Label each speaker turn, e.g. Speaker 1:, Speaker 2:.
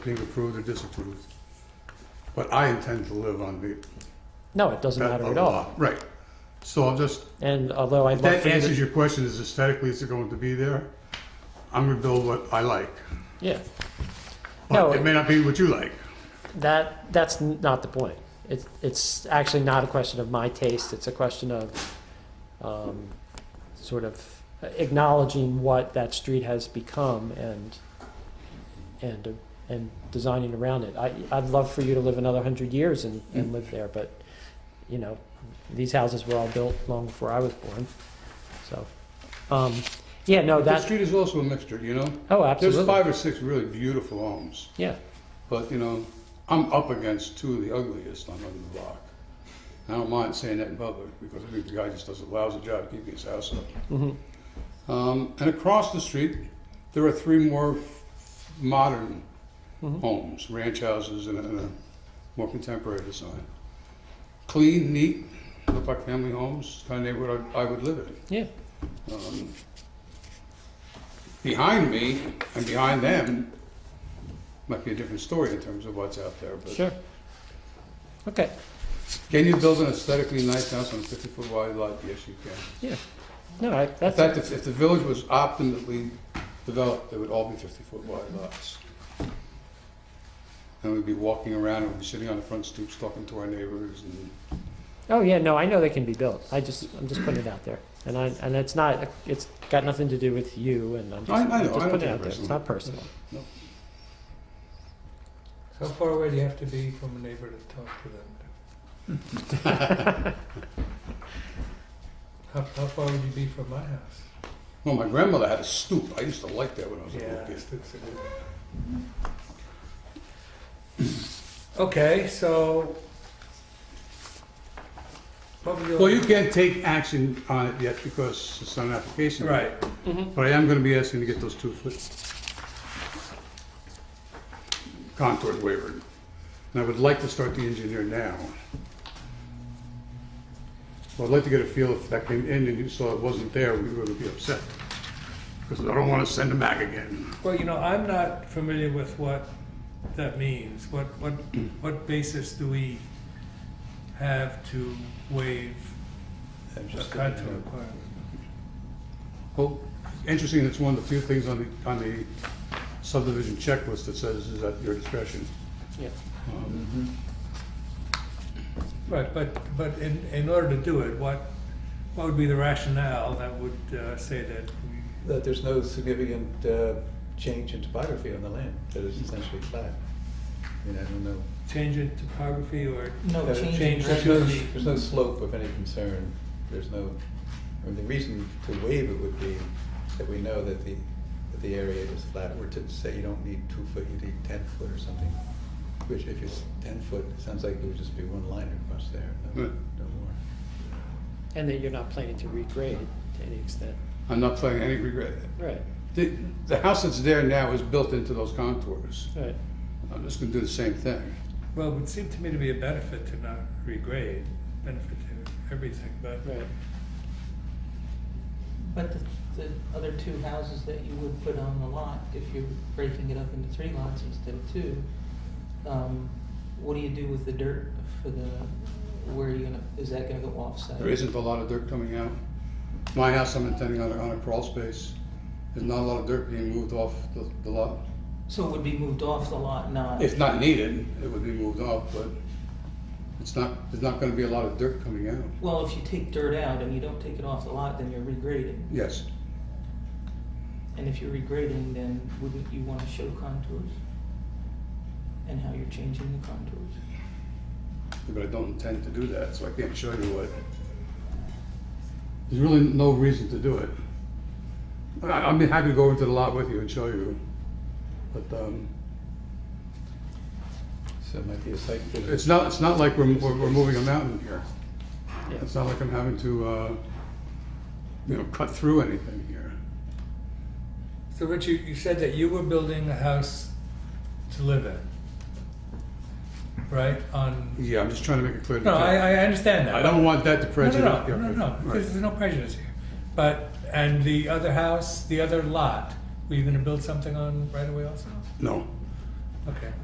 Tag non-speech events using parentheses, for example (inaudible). Speaker 1: being approved or disapproved. But I intend to live on the.
Speaker 2: No, it doesn't matter at all.
Speaker 1: Right. So I'm just,
Speaker 2: And although I'd
Speaker 1: if
Speaker 2: love
Speaker 1: that
Speaker 2: for you to,
Speaker 1: answers your question, is aesthetically, is it going to be there? I'm gonna build what I like.
Speaker 2: yeah, No,
Speaker 1: But it may not be what you like.
Speaker 2: that that's n- not the point. It's it's actually not a question of my taste. It's a question of um, sort of acknowledging what that street has become and and and designing around it. I I'd love for you to live another hundred years and, and live there, but you know these houses were all built long before I was born, so. Um, yeah, no,
Speaker 1: The
Speaker 2: that.
Speaker 1: street is also a mixture, you know?
Speaker 2: Oh, absolutely.
Speaker 1: There's five or six really beautiful homes,
Speaker 2: Yeah.
Speaker 1: but, you know, I'm up against two of the ugliest on the block. I don't mind saying that in public, because I think the guy just does a lousy job keeping his house up.
Speaker 2: Mm-hmm.
Speaker 1: Um, and across the street, there are three more modern
Speaker 2: Mhm.
Speaker 1: homes, ranch houses, and a, and a more contemporary design. Clean, neat, look like family homes, kind of neighborhood I, I would live in.
Speaker 2: Yeah.
Speaker 1: Um, behind me and behind them might be a different story in terms of what's out there. But
Speaker 2: Sure. Okay.
Speaker 1: can you build an aesthetically nice house on a 50 foot wide lot? Yes, you can.
Speaker 2: Yeah. No, I,
Speaker 1: In
Speaker 2: that's
Speaker 1: fact, if, if the village was optimally developed, it would all be 50-foot wide lots. And we'd be walking around, and we'd be sitting on the front stoops talking to our neighbors, and
Speaker 2: Oh yeah, no, I know they can be built. I just I'm just putting it out there, and I and it's not it's got nothing to do with you, and I'm just,
Speaker 1: I- I know,
Speaker 2: am
Speaker 1: I
Speaker 2: just
Speaker 1: don't
Speaker 2: putting
Speaker 1: take
Speaker 2: it
Speaker 1: it
Speaker 2: out there. It's
Speaker 1: personally.
Speaker 2: not personal.
Speaker 3: How far away do you have to be from a neighbor to talk to them?
Speaker 1: (laughs)
Speaker 3: How, how far would you be from my house?
Speaker 1: well, my grandmother had a stoop, I used to like that when I was a little kid.
Speaker 3: it's- it's a good one. (coughs) Okay, so. what were
Speaker 1: Well, you can't take action on it yet because it's not an application.
Speaker 3: Right,
Speaker 1: But I am gonna be asking to get those two-foot contours wavered. And I would like to start the engineer now. Well, I'd like to get a feel if that came in and you saw it wasn't there, we would be upset. Because I don't wanna send them back again.
Speaker 3: well, you know, I'm not familiar with what that means. What,
Speaker 1: (coughs)
Speaker 3: what, what basis do we have to waive a contour requirement?
Speaker 1: Well, interesting, it's one of the few things on the, on the subdivision checklist that says is at your discretion.
Speaker 2: Yeah.
Speaker 1: Um,
Speaker 3: Right, but, but in, in order to do it, what, what would be the rationale that would uh, say that we,
Speaker 4: That there's no significant uh, change in topography on the land, that it's essentially flat. I mean, I don't know.
Speaker 3: change in topography or?
Speaker 4: No
Speaker 3: change
Speaker 4: There's no,
Speaker 3: the-
Speaker 4: there's no slope of any concern, there's no, I mean, the reason to waive it would be that we know that the, that the area is flat, or to say you don't need two foot, you need ten foot or something. Which if it's ten foot, it sounds like it would just be one line across there, no,
Speaker 1: Right.
Speaker 4: no more.
Speaker 2: And that you're not planning to regrade to any extent.
Speaker 1: I'm not playing any regret.
Speaker 2: Right.
Speaker 1: The, the house that's there now is built into those contours.
Speaker 2: Right.
Speaker 1: I'm just gonna do the same thing.
Speaker 3: Well, it would seem to me to be a benefit to not regrade, benefit to everything, but
Speaker 2: Right.
Speaker 5: But the, the other two houses that you would put on the lot, if you're breaking it up into three lots instead of two, um, what do you do with the dirt for the, where are you gonna, is that gonna go off-site?
Speaker 1: There isn't a lot of dirt coming out. My house, I'm intending on a, on a crawl space. There's not a lot of dirt being moved off the, the lot.
Speaker 5: So it would be moved off the lot, not,
Speaker 1: If not needed, it would be moved off, but it's not, there's not gonna be a lot of dirt coming out.
Speaker 5: well, if you take dirt out and you don't take it off the lot, then you're regrading.
Speaker 1: Yes,
Speaker 5: And if you're regrading, then wouldn't you wanna show contours? And how you're changing the contours?
Speaker 1: but I don't intend to do that, so I can't show you what. There's really no reason to do it. I, I'm happy to go into the lot with you and show you, but, um,
Speaker 4: So it might be a site visit.
Speaker 1: It's not, it's not like we're, we're we're moving a mountain here.
Speaker 2: Yeah.
Speaker 1: It's not like I'm having to, uh, you know, cut through anything here.
Speaker 3: So Richard, you said that you were building a house to live in, right, on,
Speaker 1: Yeah, I'm just trying to make it clear. to
Speaker 3: no,
Speaker 1: Ken.
Speaker 3: I, I understand that.
Speaker 1: I don't want that to
Speaker 3: No,
Speaker 1: prejudice.
Speaker 3: no, no, no, no,
Speaker 1: Right.
Speaker 3: because there's no prejudice here. But, and the other house, the other lot, were you gonna build something on right away also?
Speaker 1: No,
Speaker 3: Okay.